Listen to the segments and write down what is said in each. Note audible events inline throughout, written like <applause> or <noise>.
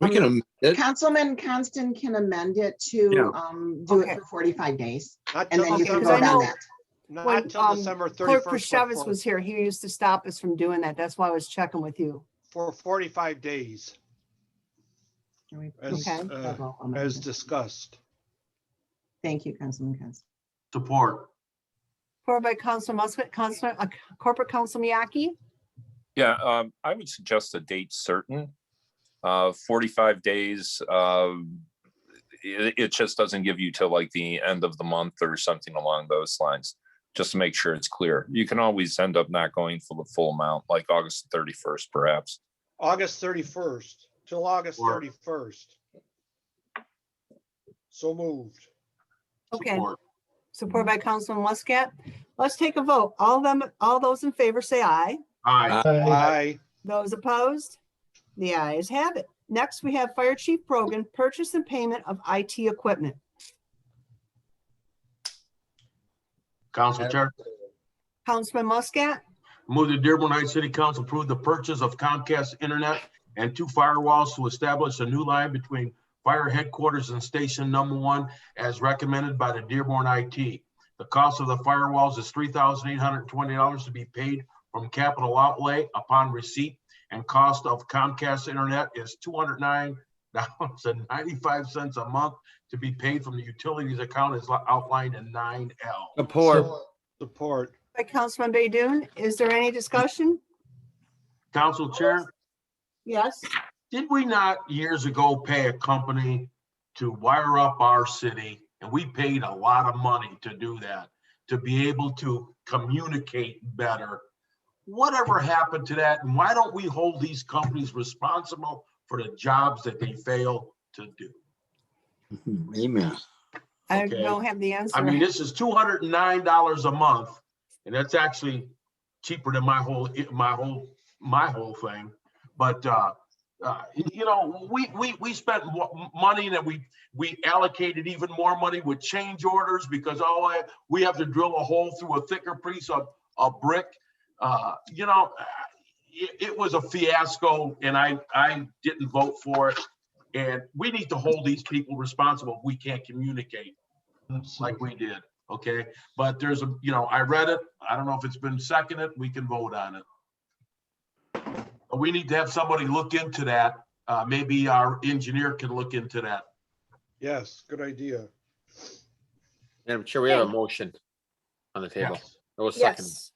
We can amend it. Um, Councilman Constant can amend it to, Yeah. um, do Okay. it for forty-five days Not and till then you can Okay, December- vote 'cause I on know- that. when, Not till um, December Clerk thirty-first Prishavis was here. He used to stop us from doing that. That's why I was checking with you. for forty-five days, Can we as, make uh, several as amendments? discussed. Thank you, Councilman Constant. Support. Supported by Council Muscat, Council, uh, Corporate Council Miyaki. Yeah, um, I would suggest a date certain. Uh, forty-five days, um, it, it just doesn't give you till like the end of the month or something along those lines. Just to make sure it's clear. You can always end up not going for the full amount, like August thirty-first perhaps. August thirty-first, till August Or- thirty-first. So moved. Okay, Support. supported by Councilman Muscat. Let's take a vote. All them, all those in favor say aye. Aye. Aye, Those opposed? The ayes have it. Next, we have Fire Chief Brogan, purchase and payment of IT equipment. Council Chair, Councilman Muscat, move the Dearborn Heights City Council approve the purchase of Comcast Internet and two firewalls to establish a new line between fire headquarters and station number one as recommended by the Dearborn IT. The cost of the firewalls is three thousand eight hundred and twenty dollars to be paid from capital outlay upon receipt and cost of Comcast Internet is two hundred nine dollars and ninety-five cents a month to be paid from the utilities account as outlined in nine L. Support. support. by Councilman Baydoun. Is there any discussion? Council Chair, Yes, did we not years ago pay a company to wire up our city? And we paid a lot of money to do that, to be able to communicate better. Whatever happened to that? And why don't we hold these companies responsible for the jobs that they fail to do? Amen. I Okay. don't have the I mean, answer. this is two hundred and nine dollars a month, and that's actually cheaper than my whole, my whole, my whole thing. But, uh, uh, you know, we, we, we spent mo- money that we, we allocated even more money with change orders because all I, we have to drill a hole through a thicker piece of, of brick. Uh, you know, it, it was a fiasco and I, I didn't vote for it. And we need to hold these people responsible. We can't communicate like we did, okay? But there's a, you know, I read it. I don't know if it's been seconded. We can vote on it. But we need to have somebody look into that. Uh, maybe our engineer can look into that. Yes, good idea. Madam Chair, we have a motion on the table. It was second. Yes.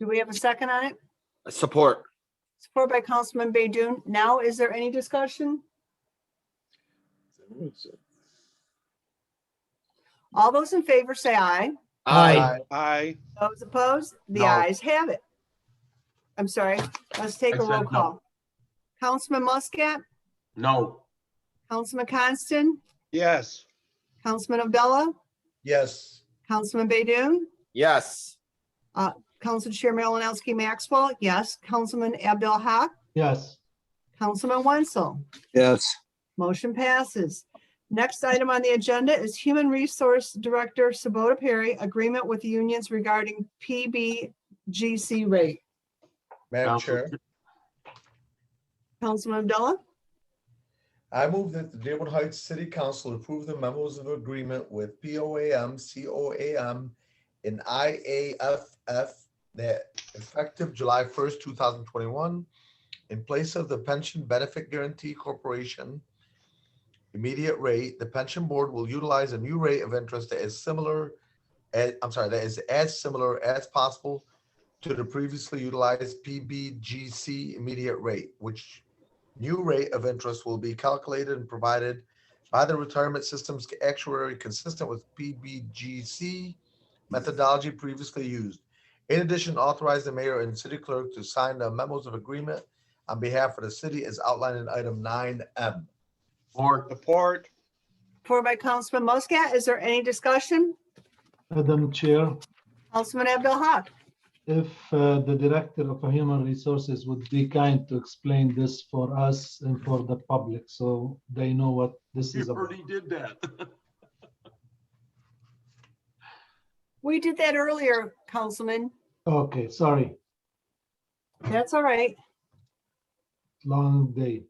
Do we have a second on it? Support. Support by Councilman Baydoun. Now, is there any discussion? All those in favor say aye. Aye. Aye, Those opposed? The No. ayes have it. I'm sorry, let's take I a roll said no. call. Councilman Muscat, No, Councilman Coniston, yes, Councilman Abdullah, Yes. Councilman Baydoun, Yes. Council Chair Malinowski Maxwell, yes, Councilman Abdul Haq, Yes. Councilman Wenzel. Yes. Motion passes. Next item on the agenda is Human Resource Director Sabota Perry, agreement with unions regarding PBGC rate. Madam Council Chair, Councilman Abdullah, I move that the Dearborn Heights City Council approve the memos of agreement with POAM, COAM, and IAFF that effective July first, two thousand twenty-one, in place of the Pension Benefit Guarantee Corporation immediate rate, the pension board will utilize a new rate of interest that is similar, eh, I'm sorry, that is as similar as possible to the previously utilized PBGC immediate rate, which New rate of interest will be calculated and provided by the retirement system's actuary consistent with PBGC methodology previously used. In addition, authorize the mayor and city clerk to sign the memos of agreement on behalf of the city as outlined in item nine M. or support, for by Councilman Muscat, is there any discussion? Madam Chair, Councilman Abdul Haq, if uh, the Director of Human Resources would be kind to explain this for us and for the public, so they know what this you is about. already did that. <laughs> we did that earlier, Councilman. Okay, sorry, That's all right. long day.